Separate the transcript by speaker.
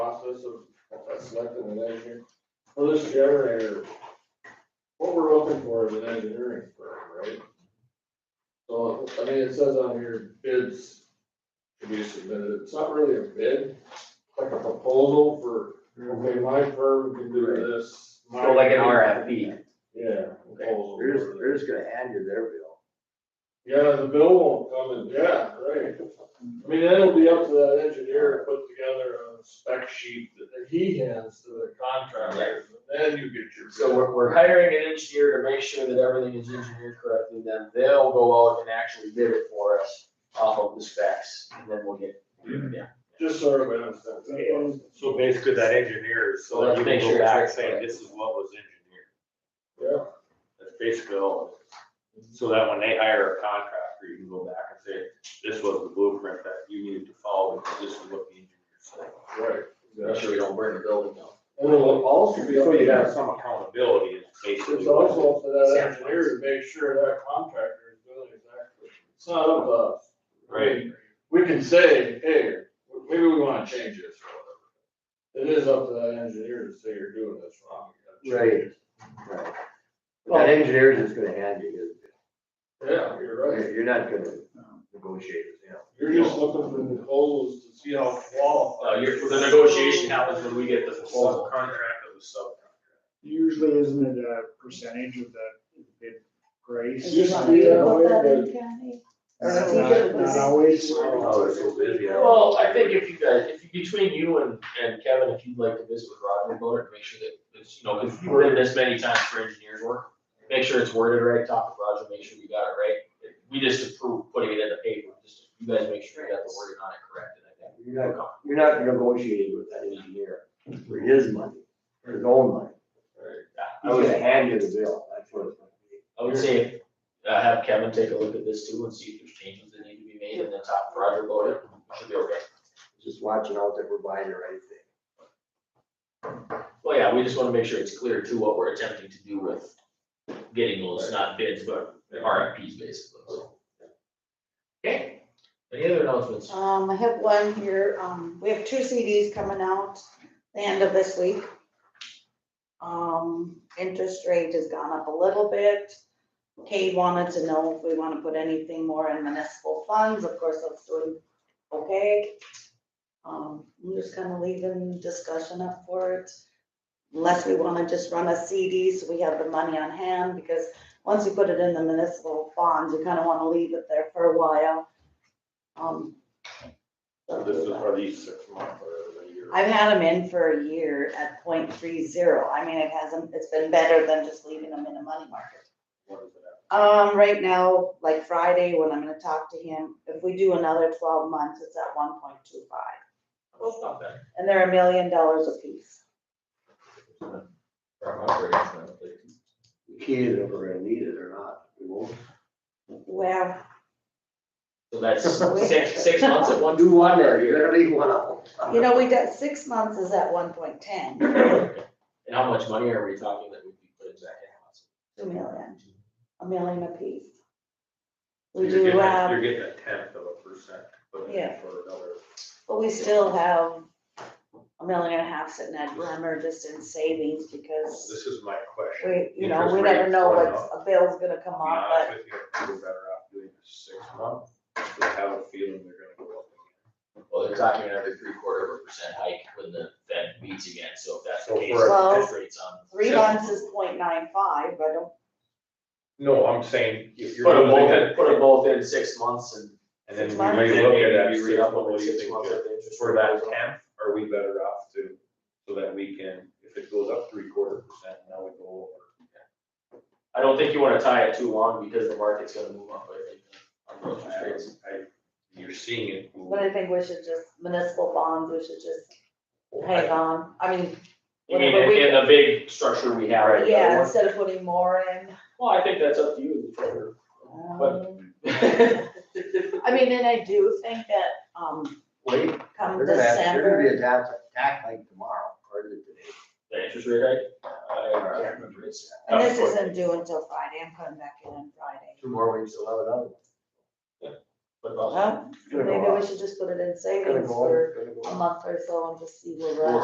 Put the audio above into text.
Speaker 1: process of of selecting an engineer? For this generator, what we're looking for is an engineering firm, right? So, I mean, it says on here bids to be submitted. It's not really a bid, it's like a proposal for, okay, my firm can do this. my-
Speaker 2: So like an RFP.
Speaker 1: Yeah.
Speaker 2: Oh,
Speaker 1: proposal.
Speaker 3: They're just, they're just gonna hand you their bill.
Speaker 1: Yeah, the bill won't come in, yeah, right. I mean, that'll be up to that engineer to put together a spec sheet that he hands to the contractor, and then you get your.
Speaker 2: So we're, we're hiring an engineer to make sure that everything is engineered correctly, then they'll go out and actually bid it for us off of the specs, and then we'll get, yeah.
Speaker 1: Just so everybody understands. that.
Speaker 4: So basically that engineer, is so that you can
Speaker 2: Make sure
Speaker 4: go
Speaker 2: it's
Speaker 4: back
Speaker 2: right.
Speaker 4: saying this is what was engineered.
Speaker 1: Yeah,
Speaker 4: That's basically all. it is. So that when they hire a contractor, you can go back and say, this was the blueprint that you needed to follow, because this is what the engineer said.
Speaker 1: right.
Speaker 2: Make
Speaker 1: exactly.
Speaker 2: sure we don't burn the building down.
Speaker 1: And it'll also be. up
Speaker 4: So
Speaker 1: to
Speaker 4: you
Speaker 1: that-
Speaker 4: have some accountability in case.
Speaker 1: It's also up to that engineer to make sure that contractor is doing exactly, it's not up to us.
Speaker 4: Right.
Speaker 1: We can say, hey, maybe we wanna change this or whatever. It is up to that engineer to say you're doing this wrong. you gotta change
Speaker 3: Right. But That engineer's just gonna hand you his bill.
Speaker 1: it. Yeah, you're right.
Speaker 3: You're- You're not gonna negotiate it, you know.
Speaker 1: You're just looking for the holes to see how
Speaker 4: Uh,
Speaker 1: qualified.
Speaker 4: happens when we get the
Speaker 2: proposal.
Speaker 4: Contract of the subcontract.
Speaker 5: Usually isn't it a percentage of the bid price?
Speaker 1: Just be that way, but-
Speaker 5: Not not always.
Speaker 4: Oh, they're so busy. I don't-
Speaker 2: Well, I think if you guys, if you, between you and, and Kevin, if you'd like to visit with Roger about it, make sure that, it's, you know, if you've written this many times for engineers work, make sure it's worded right, talk to Roger, make sure we got it right. We just approve putting it in the paper, just, you guys make sure you got the wording on it correct, and I think
Speaker 3: You're not, you're not negotiating with that engineer for his money, for his own money.
Speaker 2: I
Speaker 3: He's
Speaker 2: would,
Speaker 3: gonna hand you the bill, that's what it's gonna be.
Speaker 2: I would say, uh, have Kevin take a look at this too and see if there's changes that need to be made and then talk to Roger about it, should be okay.
Speaker 3: Just watching out that we're buying the right thing.
Speaker 2: Well, yeah, we just wanna make sure it's clear too what we're attempting to do with getting those, not bids, but RFPs basically, so. Okay, any other announcements?
Speaker 6: Um, I have one here, um, we have two CDs coming out the end of this week. Um, interest rate has gone up a little bit. Kate wanted to know if we wanna put anything more in municipal funds, of course, that's doing okay. Um, I'm just kinda leaving discussion up for it. Unless we wanna just run a CD, so we have the money on hand, because once you put it in the municipal funds, you kinda wanna leave it there for a while. Um.
Speaker 4: So This is for these six months or a year.
Speaker 6: I've had them in for a year at 0.30. I mean, it hasn't, it's been better than just leaving them in a money market.
Speaker 4: What is it at?
Speaker 6: Um, right now, like Friday, when I'm gonna talk to him, if we do another twelve months, it's at one point two five.
Speaker 2: Well, not bad.
Speaker 6: And they're a million dollars apiece.
Speaker 2: Our operating plan, like,
Speaker 3: The key is if we're gonna need it or not, we won't.
Speaker 6: Well,
Speaker 2: So that's six, six months at one.
Speaker 3: there, you're gonna leave one out.
Speaker 6: you know, we got, six months is at one point ten, two
Speaker 2: And how much money are we talking that we'd be putting back in?
Speaker 6: million, a million apiece.
Speaker 4: You're
Speaker 6: We
Speaker 4: getting
Speaker 6: do
Speaker 4: a-
Speaker 6: have,
Speaker 4: You're getting a tenth of a percent. but
Speaker 6: Yeah.
Speaker 4: For another.
Speaker 6: but we still have a million and a half sitting at Bremer just in savings because.
Speaker 4: This is my question.
Speaker 6: We, you know,
Speaker 4: Interest
Speaker 6: we never
Speaker 4: rates
Speaker 6: know
Speaker 4: going
Speaker 6: what a bill's gonna come
Speaker 4: Be
Speaker 6: up,
Speaker 4: honest
Speaker 6: but
Speaker 4: with you, I think we're better off doing a six month, I have a feeling they're gonna go up
Speaker 2: Well, they're talking another three quarter of a percent hike when the Fed meets again, so if that's the
Speaker 4: So
Speaker 2: case,
Speaker 4: Oh, for
Speaker 6: a-
Speaker 2: interest rates on.
Speaker 6: three months is 0.95. but I don't,
Speaker 4: again. No, I'm saying, if you're.
Speaker 2: Put them both
Speaker 4: looking
Speaker 2: in,
Speaker 4: at-
Speaker 2: put them both in six months and.
Speaker 4: And then
Speaker 6: Six
Speaker 4: we
Speaker 6: months.
Speaker 4: may look at that,
Speaker 2: Maybe
Speaker 4: six
Speaker 2: read up
Speaker 4: month,
Speaker 2: on
Speaker 4: what
Speaker 2: what
Speaker 4: do you
Speaker 2: six
Speaker 4: think,
Speaker 2: months
Speaker 4: Jeff?
Speaker 2: of the interest
Speaker 4: For
Speaker 2: rate
Speaker 4: that
Speaker 2: is.
Speaker 4: tenth, are we better off to, so that we can, if it goes up three quarter percent, now we go over.
Speaker 2: I don't think you wanna tie it too long because the market's gonna move up, I think, on those interest rates.
Speaker 4: I- You're seeing it. move.
Speaker 6: but I think we should just municipal bonds, we should just hang on, I mean,
Speaker 2: You mean,
Speaker 6: Whatever we-
Speaker 2: in, in the big structure we have right now.
Speaker 6: yeah, instead of putting more in.
Speaker 2: Well, I think that's up to you, the treasurer. But-
Speaker 6: um, I mean, and I do think that, um,
Speaker 3: Wait,
Speaker 6: come
Speaker 3: They're gonna have, they're gonna
Speaker 6: December,
Speaker 3: be attacked, attacked like tomorrow, or is it today?
Speaker 2: The interest rate hike? I can't remember, it's.
Speaker 6: and this isn't due until Friday, I'm coming back in on Friday.
Speaker 3: Two more weeks, we'll have another one.
Speaker 2: What about that?
Speaker 6: Well,
Speaker 3: Gonna go
Speaker 6: maybe
Speaker 3: up.
Speaker 6: we should just put it in
Speaker 3: Gonna
Speaker 6: savings
Speaker 3: go up,
Speaker 6: for
Speaker 3: gonna go
Speaker 6: a
Speaker 3: up.
Speaker 6: month or so and just see where we're at.